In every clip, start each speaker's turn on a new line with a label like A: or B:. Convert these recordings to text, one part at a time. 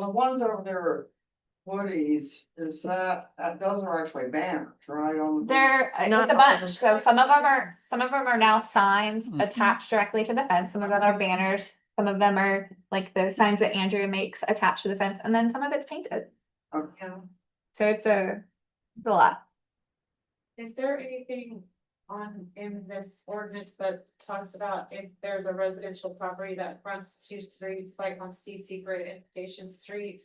A: The ones over there, Woody's, is that, that those are actually banners, right? on the-
B: They're, uh,
C: Not
B: it's a
C: all of Hmm.
B: bunch, so some of them are, some of them are now signs
D: Mhm.
B: attached directly to the fence, some of them are banners. Some of them are like the signs that Andrea makes attached to the fence, and then some of it's painted,
A: Okay.
B: so it's a, it's a lot.
C: Is there anything on, in this ordinance that talks about if there's a residential property that fronts two streets, like on CC Grid and Station Street?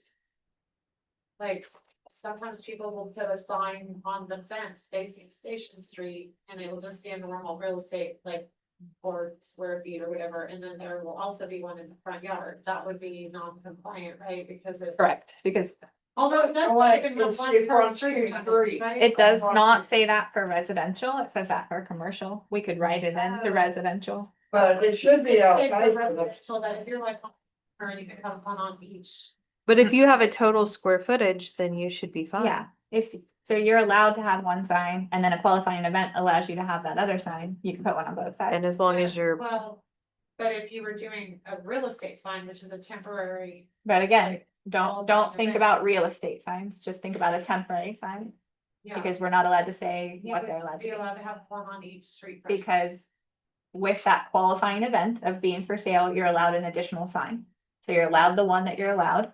C: Like, sometimes people will put a sign on the fence facing Station Street, and it will just be a normal real estate, like. Or square feet or whatever, and then there will also be one in the front yard, that would be non-compliant, right, because it's.
B: Correct. Because
C: Although it does.
A: Or
C: say
A: like
C: in the
A: it's
C: one
A: the
C: per
A: front street.
C: right?
B: it does
C: Or-
B: not say that for residential, it says that for commercial, we could write it in the
C: Oh.
B: residential.
A: But it should be
C: It's
A: out.
C: safe for residential, that if you're like, on- or you could have one on each.
E: But if you have a total square footage, then you should be fine.
B: Mm. Yeah, if, so you're allowed to have one sign, and then a qualifying event allows you to have that other sign, you can put one on both
E: And
B: sides.
E: as long as you're,
C: Well, but if you were doing a real estate sign, which is a temporary,
B: But again,
C: all
B: don't, don't
C: the
B: think
C: events.
B: about real estate signs, just think about a temporary sign.
C: yeah.
B: Because we're not allowed to say
C: You
B: what
C: would
B: they're allowed to
C: be
B: do,
C: allowed to have one on each street. correct?
B: because. With that qualifying event of being for sale, you're allowed an additional sign, so you're allowed the one that you're allowed.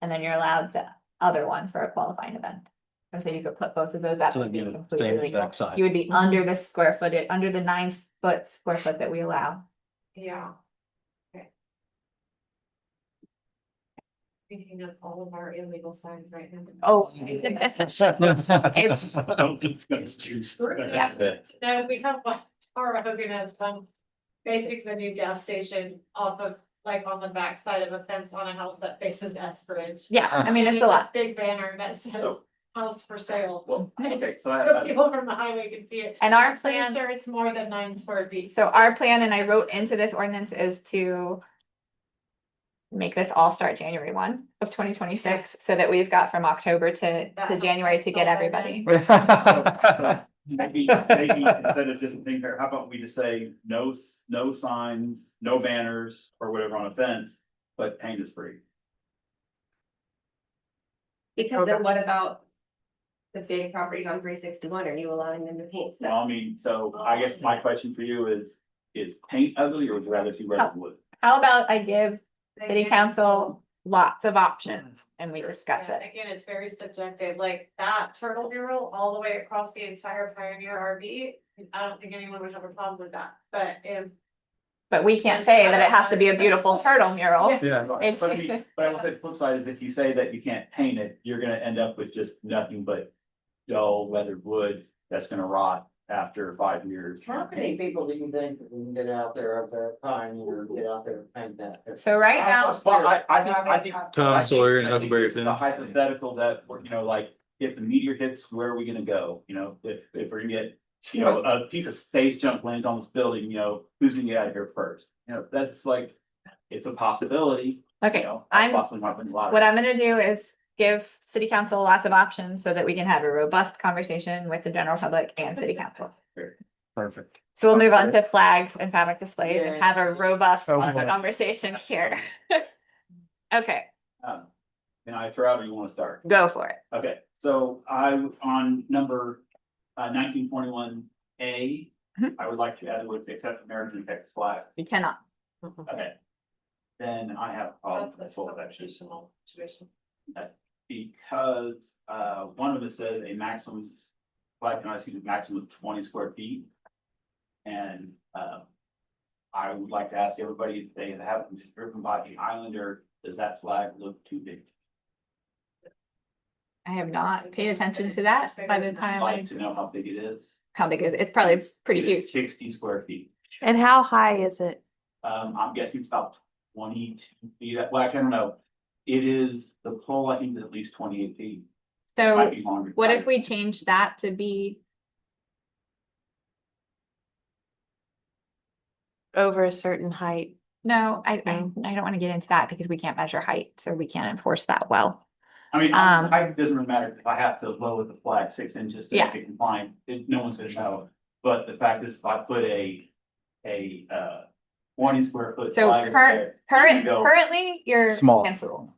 B: And then you're allowed the other one for a qualifying event, and so you could put both of those up.
D: So
B: it'd be
D: it'd be the
B: completely
D: same
B: legal.
D: exact sign.
B: You would be under the square footage, under the nine foot square foot that we allow,
C: Yeah. Okay. Thinking of all of our illegal signs right now.
B: Oh.
C: Yeah. No, we have one, Tara Hogan has one, basically the new gas station off of, like, on the backside of a fence on a house that faces S Bridge.
B: yeah, I mean, it's a lot,
C: Big banner that says
F: Oh.
C: house for sale,
F: Well, okay,
C: so
F: so I, I-
C: people from the highway can see it.
B: and our
C: Pretty
B: plan.
C: sure it's more than nine square feet.
B: So our plan, and I wrote into this ordinance, is to. Make this all start January one of twenty twenty six, so that we've got from October to
C: That
B: to
C: helps
B: January to get
C: out by
B: everybody.
F: maybe, maybe instead of just thinking, how about we just say no, s- no signs, no banners or whatever on a fence, but paint is free.
G: Because then what about? The big properties on three sixty-one, are you allowing them to paint
F: So
G: stuff?
F: I mean, so I guess my question for you is, is paint ugly or would you rather see red wood?
B: How about I give city council lots of options and we discuss
C: Mm-hmm. Yeah,
B: it?
C: Again, it's very subjective, like that turtle mural all the way across the entire Pioneer RV, I don't think anyone would have a problem with that, but if
B: But we can't say that it has to be a beautiful turtle mural.
D: Yeah.
B: If-
F: Right, But I mean, but I will say the flip side is if you say that you can't paint it, you're gonna end up with just nothing but dull weathered wood that's gonna rot after five years.
H: How many people do you think we can get out there at that time, you know, get out there and paint that?
B: So right now,
F: Well, I, I think, I think.
D: Tom
F: I think-
D: Sawyer and
F: I think
D: Huckleberry
F: it's
D: Finn.
F: The hypothetical that, we're, you know, like, if the meteor hits, where are we gonna go? You know, if, if we're gonna get, you know, a piece of space junk lands on this building, you know, who's gonna get out of here first? You know, that's like, it's a possibility, you
B: okay,
F: know.
B: I'm-
F: Possibly not been a lot.
B: what I'm gonna do is give city council lots of options so that we can have a robust conversation with the general public and city council.
D: Perfect.
B: So we'll move on to flags and fabric displays and
H: Yeah.
B: have a robust
D: Oh, boy.
B: conversation here. Okay,
F: Um, Can I throw out or you wanna start?
B: go for it.
F: Okay, so I, on number uh, nineteen twenty-one A,
B: Mhm.
F: I would like to add the words except American Texas flag.
B: You cannot.
F: Okay. Then I have a problem
C: that's
F: with
C: the
F: this whole section
C: constitutional tuition.
F: because uh, one of it says a maximum, flag can excuse a maximum of twenty square feet. And um, I would like to ask everybody if they have been driven by the islander, does that flag look too big?
B: I have not paid attention to that by the time,
F: I'd like
B: I
F: to know how big it is.
B: how big is it? It's probably pretty
F: It is
B: huge.
F: Sixty square feet.
E: and how high is it?
F: Um, I'm guessing it's about twenty-two feet, well, I don't know. It is, the pole, I think, is at least twenty-eight feet, might
B: So
F: be longer.
B: what if we change that to be,
E: Over a certain height?
B: no, I, I,
E: No.
B: I don't want to get into that because we can't measure height, so we can't enforce that well.
F: I mean,
B: um,
F: I, it doesn't really matter if I have to lower the flag six inches to
B: Yeah.
F: make it compliant, it- no one's gonna know. But the fact is, if I put a, a, uh, twenty square foot
B: So
F: flag
B: current-
F: there,
B: Current,
F: Go.
B: currently, you're.
D: Small.
B: against the rules.